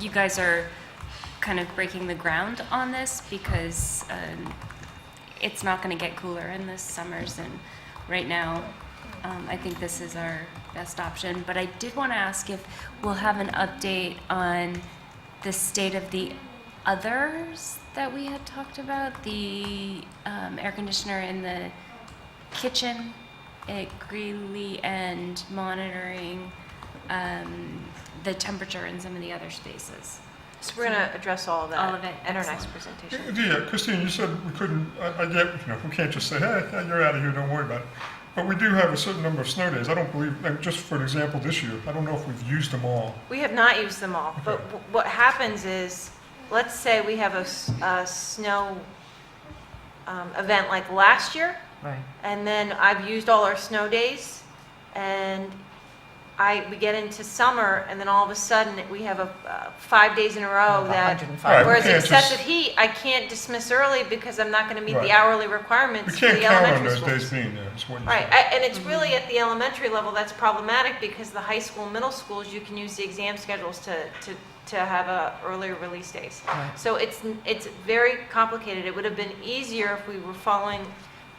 you guys are kind of breaking the ground on this because um, it's not going to get cooler in the summers. And right now, um, I think this is our best option. But I did want to ask if we'll have an update on the state of the others that we had talked about, the um, air conditioner in the kitchen at Greeley and monitoring um, the temperature in some of the other spaces. So we're going to address all of that. All of it. In our next presentation. Yeah, Christine, you said we couldn't, I, I get, you know, we can't just say, hey, yeah, you're out of here, don't worry about it. But we do have a certain number of snow days. I don't believe, like, just for an example, this year, I don't know if we've used them all. We have not used them all, but w- what happens is, let's say we have a, s- a snow um, event like last year, Right. and then I've used all our snow days, and I, we get into summer, and then all of a sudden, we have a, uh, five days in a row Oh, that, 105. Right, we whereas can't just- excessive heat, I can't dismiss early because I'm not going to meet Right. the hourly We requirements for can't the count on elementary those days schools. being there, is what you Right, said. I- and Mm-hmm. it's really at the elementary level that's problematic because the high school, middle schools, you can use the exam schedules to, to, to have a earlier release days. Right. So it's, n- it's very complicated. It would have been easier if we were following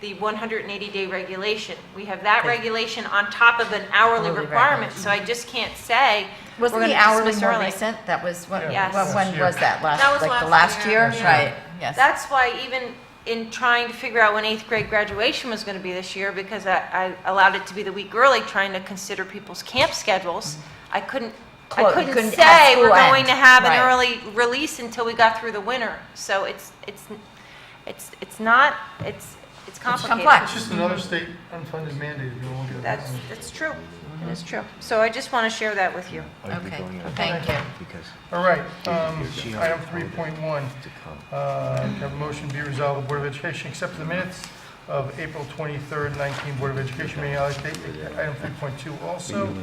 the 180-day regulation. We have that Okay. regulation on top of an hourly Hourly requirement, so I just can't say, we're Wasn't going the to hourly dismiss more early. recent? That was, when, Yeah. Yes. what- Last when was year. that? Last, That was like the last last year. year? Yeah. Right, yes. That's why even in trying to figure out when eighth grade graduation was going to be this year, because I, I allowed it to be the week early, trying to consider people's camp schedules, I couldn't, I Clo- couldn't Mm-hmm. couldn't have say we're school going end, to have an right. early release until we got through the winter. So it's, it's, it's, it's not, it's, it's complicated. It's just another state unfunded mandate if you want to look at it. That's, that's true. It is true. So I just want to share that with you. Okay, thank Um, you. Because All right, um, She item already three told point one, to come. uh, can I have a motion be resolved, the Board of Education accepts the minutes of April twenty-third, nineteen Board of Education meeting. I'll take Item three point two also,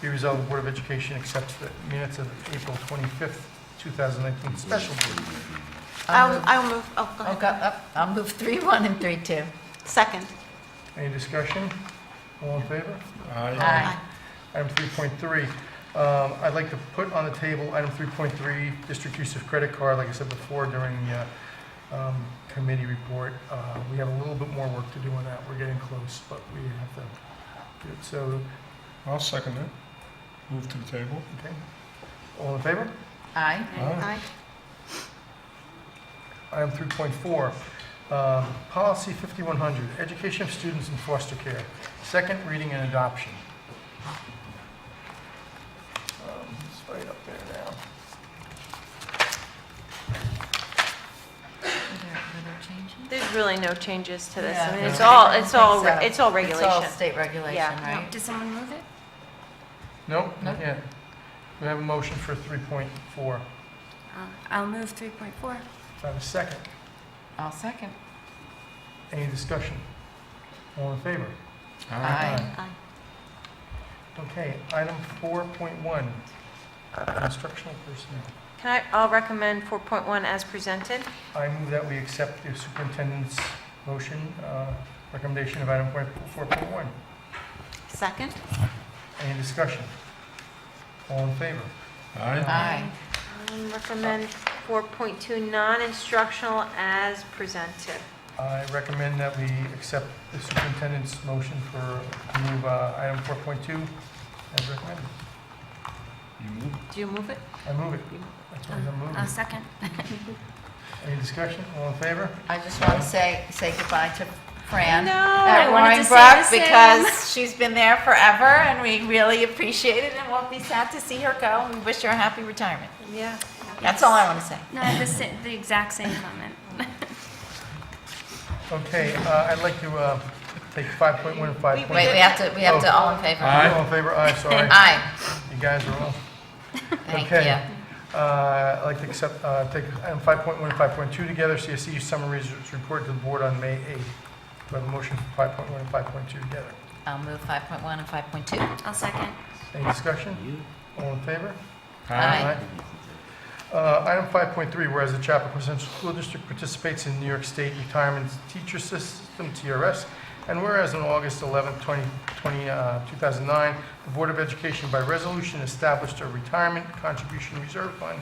be resolved, the Board of Education accepts the minutes of April twenty-fifth, two thousand nineteen special board. meeting. I'll move- I'll move, oh, go I'll go up- I'll move three one and three two. Second. Any discussion? All in favor? I- Aye. Item 3.3, um, I'd like to put on the table item 3.3, district use of credit card, like I said before during the uh, um, committee report. uh, We have a little bit more work to do on that. We're getting close, but we have to do it. So, I'll second that. Move to the table. okay. All in favor? Oh. Aye. Aye. Item 3.4, um, policy 5100, education of students in foster care, second reading and adoption. Um, It's right up there now. There's really no changes to this. I Yeah. mean, it's Yeah. all, I don't it's all, think so. it's all It's all regulation. state regulation, Yeah. right? Did someone move it? Nope, No? not yet. We have a motion for 3.4. Uh, I'll move 3.4. If I have a second, I'll second. any discussion? All in favor? Aye. Okay, item 4.1, instructional personnel. Can I, I'll recommend 4.1 as presented. I move that we accept the superintendent's motion, uh, recommendation of item point 4.1. Second. Any discussion? All in favor? Aye. Aye. Recommend 4.2 non-instructional as presented. I recommend that we accept the superintendent's motion for move uh, item 4.2 as recommended. You move it. Do you move it? I move it. That's what I'm I'll moving. second. Any discussion? All in favor? I just want to say, say goodbye to Fran. No. At I wanted Roaring to say Brook, the because she's been there forever, and we really appreciate it, and we'll be sad to see her go, and we wish her a happy retirement. Yeah. That's all I want to say. No, I have the, sa- the exact same comment. Oh. Okay, uh, I'd like to uh, take 5.1 and Wait, 5.2. we have to, we have to, all in favor? Aye. All in favor? Aye, sorry. Aye, You guys are all. thank Okay. you. Uh, I'd like to accept, uh, take item 5.1 and 5.2 together, CSU summary results report to the board on May 8th. Do I have a motion for 5.1 and 5.2 together? I'll move 5.1 and 5.2. I'll second. Any discussion? All in favor? Aye. Uh, Item 5.3, whereas the Chappaqua Central School District participates in New York State Retirement Teacher System, TRS, and whereas on August 11, 2020, uh, 2009, the Board of Education by resolution established a retirement contribution reserve fund